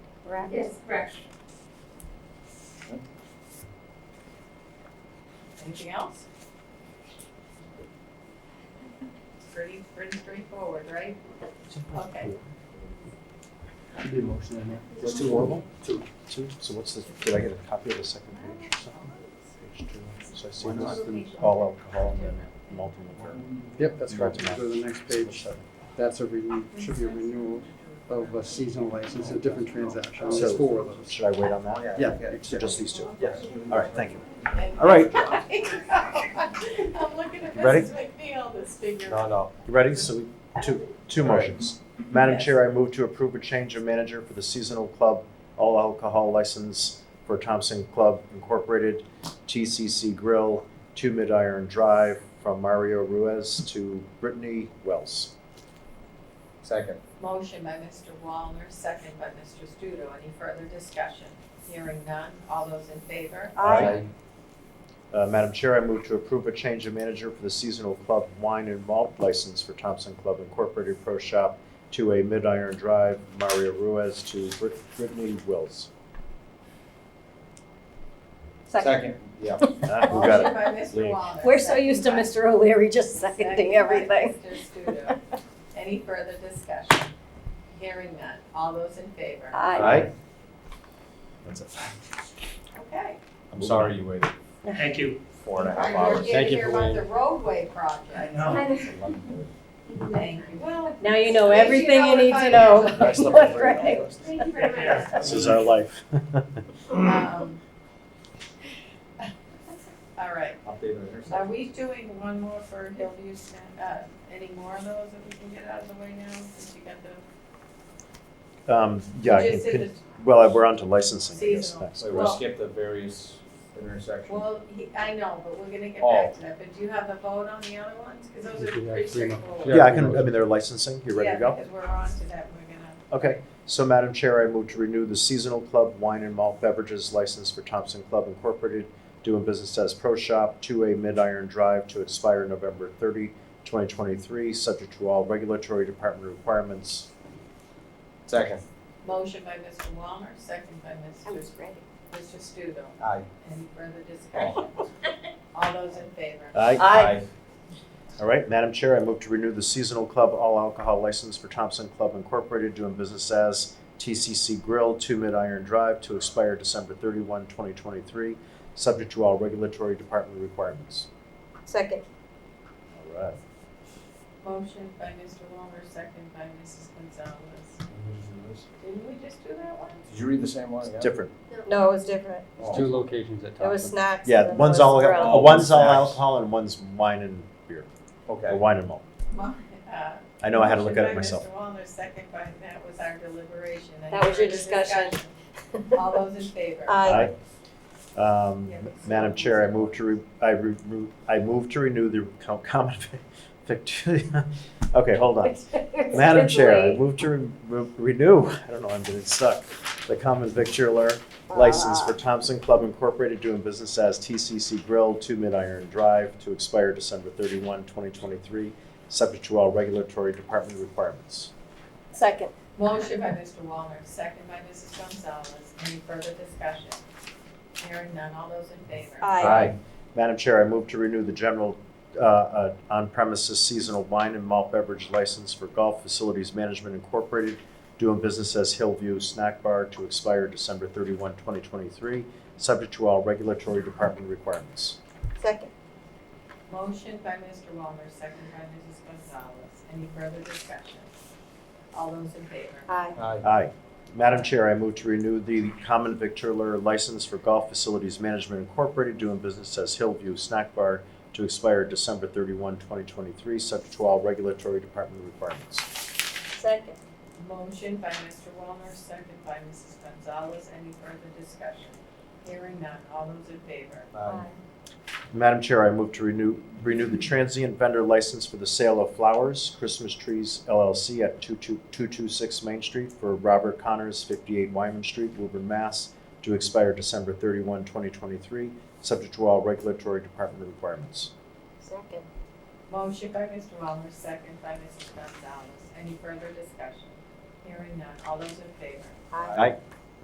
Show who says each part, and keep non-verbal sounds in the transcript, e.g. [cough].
Speaker 1: correct?
Speaker 2: Yes, correct.
Speaker 3: Anything else? Pretty, pretty straightforward, right? Okay.
Speaker 4: I did motion in there.
Speaker 2: Just
Speaker 4: two
Speaker 5: horrible?
Speaker 4: Two.
Speaker 5: Two, so what's the, did I get a copy of the second page or something? Page two, so I see
Speaker 4: Why not?
Speaker 5: this all alcohol and the multiple liquor.
Speaker 4: Yep, that's
Speaker 5: Right.
Speaker 4: correct. Go to the next page. That's a renew, should be a renewal of a seasonal license, a different transaction. There's
Speaker 5: So-
Speaker 4: four of those.
Speaker 5: Should I wait on that?
Speaker 4: Yeah.
Speaker 5: So just these two?
Speaker 4: Yes.
Speaker 5: All right, thank you.
Speaker 3: All [laughs]
Speaker 5: All right.
Speaker 3: I'm looking at
Speaker 5: Ready?
Speaker 3: Mrs. McNeil, this figure.
Speaker 5: no. You ready? So we, two, two motions. Madam
Speaker 3: Yes.
Speaker 5: Chair, I move to approve a change of manager for the seasonal club all alcohol license for Thompson Club Incorporated, TCC Grill, Two Mid Iron Drive, from Mario Ruiz to Brittany Wells.
Speaker 6: Second.
Speaker 3: Motion by Mr. Wallner, second by Mr. Studo. Any further discussion? Hearing none. All those in favor?
Speaker 1: I,
Speaker 5: Uh, Madam Chair, I move to approve a change of manager for the seasonal club wine and malt license for Thompson Club Incorporated Pro Shop to a Mid Iron Drive, Mario Ruiz to Brit- Brittany Wills.
Speaker 1: second.
Speaker 6: Yeah.
Speaker 5: Ah, we got
Speaker 3: Motion
Speaker 5: it.
Speaker 3: by Mr.
Speaker 5: Lean.
Speaker 3: Wallner.
Speaker 1: We're so used to
Speaker 3: second by-
Speaker 1: Mr. O'Leary just
Speaker 3: Second
Speaker 1: seconding
Speaker 3: by
Speaker 1: everything.
Speaker 3: Mr.
Speaker 1: [laughs]
Speaker 3: Studo. Any further discussion? Hearing none. All those in favor?
Speaker 1: I,
Speaker 6: That's it.
Speaker 3: Okay.
Speaker 6: I'm sorry you waited
Speaker 7: Thank you.
Speaker 6: four and a half
Speaker 3: We're
Speaker 6: hours.
Speaker 3: here to
Speaker 5: Thank you
Speaker 3: hear
Speaker 5: for
Speaker 3: about
Speaker 5: waiting.
Speaker 3: the roadway project. Thank you. Well,
Speaker 1: now you know
Speaker 3: At least you
Speaker 1: everything
Speaker 3: know
Speaker 1: you
Speaker 3: what
Speaker 1: need
Speaker 3: I
Speaker 1: to
Speaker 3: know.
Speaker 1: know.
Speaker 5: That's number three.
Speaker 1: Right.
Speaker 2: Thank you very much.
Speaker 5: [laughs] This is our life.
Speaker 3: um, [laughs] all right.
Speaker 6: Update on yours.
Speaker 3: Are we doing one more for Hillview, Sna- uh, any more of those that we can get out of the way now, since you got the?
Speaker 5: Um, yeah, I
Speaker 3: You just
Speaker 5: can-
Speaker 3: did
Speaker 5: well, we're on to licensing, I guess,
Speaker 3: Seasonal.
Speaker 5: next.
Speaker 6: So we
Speaker 3: Well-
Speaker 6: skipped the various
Speaker 3: the-
Speaker 6: intersections.
Speaker 3: Well, he, I know, but we're gonna get
Speaker 6: Oh.
Speaker 3: back to that, but do you have a vote on the other ones? Cause those
Speaker 4: We
Speaker 3: are
Speaker 4: do have
Speaker 3: pretty
Speaker 4: three more.
Speaker 3: straightforward.
Speaker 5: Yeah, I can, I mean, they're licensing, you ready
Speaker 3: Yeah,
Speaker 5: to go?
Speaker 3: because we're on to that, we're gonna,
Speaker 5: Okay, so Madam Chair, I move to renew the seasonal club wine and malt beverages license for Thompson Club Incorporated, doing business as Pro Shop, two A Mid Iron Drive to expire November 30, 2023, subject to all regulatory department requirements.
Speaker 6: Second.
Speaker 3: motion by Mr. Walner, second by
Speaker 1: I
Speaker 3: Mr.
Speaker 1: was ready.
Speaker 3: Mr. Studo,
Speaker 6: Aye.
Speaker 3: any further
Speaker 5: Oh.
Speaker 3: discussion? All those in favor?
Speaker 5: Aye.
Speaker 1: I,
Speaker 5: All right, Madam Chair, I move to renew the seasonal club all alcohol license for Thompson Club Incorporated, doing business as TCC Grill, two Mid Iron Drive, to expire December 31, 2023, subject to all regulatory department requirements.
Speaker 1: second.
Speaker 5: All right.
Speaker 3: Motion by Mr. Walner, second by Mrs. Gonzalez. Didn't we just do that one?
Speaker 6: Did you read the same one
Speaker 5: It's
Speaker 6: again?
Speaker 5: different.
Speaker 1: No, it was different.
Speaker 4: There's
Speaker 6: Oh.
Speaker 4: two locations at
Speaker 1: It was
Speaker 4: Thompson.
Speaker 1: snacks. and
Speaker 5: Yeah,
Speaker 1: then
Speaker 5: one's
Speaker 1: there
Speaker 5: all,
Speaker 1: was grill.
Speaker 5: uh, one's all alcohol and one's wine and beer, or
Speaker 6: Okay.
Speaker 5: wine and malt.
Speaker 3: Mo- uh,
Speaker 5: I know I had to look at it myself.
Speaker 3: Motion by Mr. Wallner, second by, that was our deliberation. Any
Speaker 1: That was your
Speaker 3: further
Speaker 1: discussion. [laughs]
Speaker 3: All those in favor?
Speaker 1: I,
Speaker 5: Um,
Speaker 3: Yeah.
Speaker 5: Madam Chair, I move to, re- I re- re- I move to renew the co- common, [laughs] victu- okay,
Speaker 1: [laughs]
Speaker 5: hold on. Madam Chair, I move to re- re- renew, I don't know, I'm getting stuck, the common victualler license for Thompson Club Incorporated doing business as TCC Grill, Two Mid Iron Drive, to expire December 31, 2023, subject to all regulatory department requirements.
Speaker 1: Second.
Speaker 3: Motion by Mr. Wallner, second by Mrs. Gonzalez. Any further discussion? Hearing none, all those in favor?
Speaker 1: I,
Speaker 5: Madam Chair, I move to renew the general uh, uh, on-premises seasonal wine and malt beverage license for Golf Facilities Management Incorporated, doing business as Hillview Snack Bar to expire December 31, 2023, subject to all regulatory department requirements.
Speaker 1: second.
Speaker 3: Motion by Mr. Wallner, second by Mrs. Gonzalez. Any further discussion? All those in favor?
Speaker 1: I,
Speaker 6: Aye.
Speaker 5: Aye. Madam Chair, I move to renew the common victualler license for Golf Facilities Management Incorporated, doing business as Hillview Snack Bar to expire December 31, 2023, subject to all regulatory department requirements.
Speaker 1: second.
Speaker 3: Motion by Mr. Wallner, second by Mrs. Gonzalez. Any further discussion? Hearing none. All those in favor?
Speaker 6: Aye.
Speaker 5: Madam Chair, I move to renew, renew the transient vendor license for the sale of flowers, Christmas Trees LLC at 22 226 Main Street for Robert Connors, 58 Wyman Street, Woburn, Mass, to expire December 31, 2023, subject to all regulatory department requirements.
Speaker 1: Second.
Speaker 3: Motion by Mr. Wallner, second by Mrs. Gonzalez. Any further discussion? Hearing none. All those in favor?
Speaker 1: I,
Speaker 5: Aye.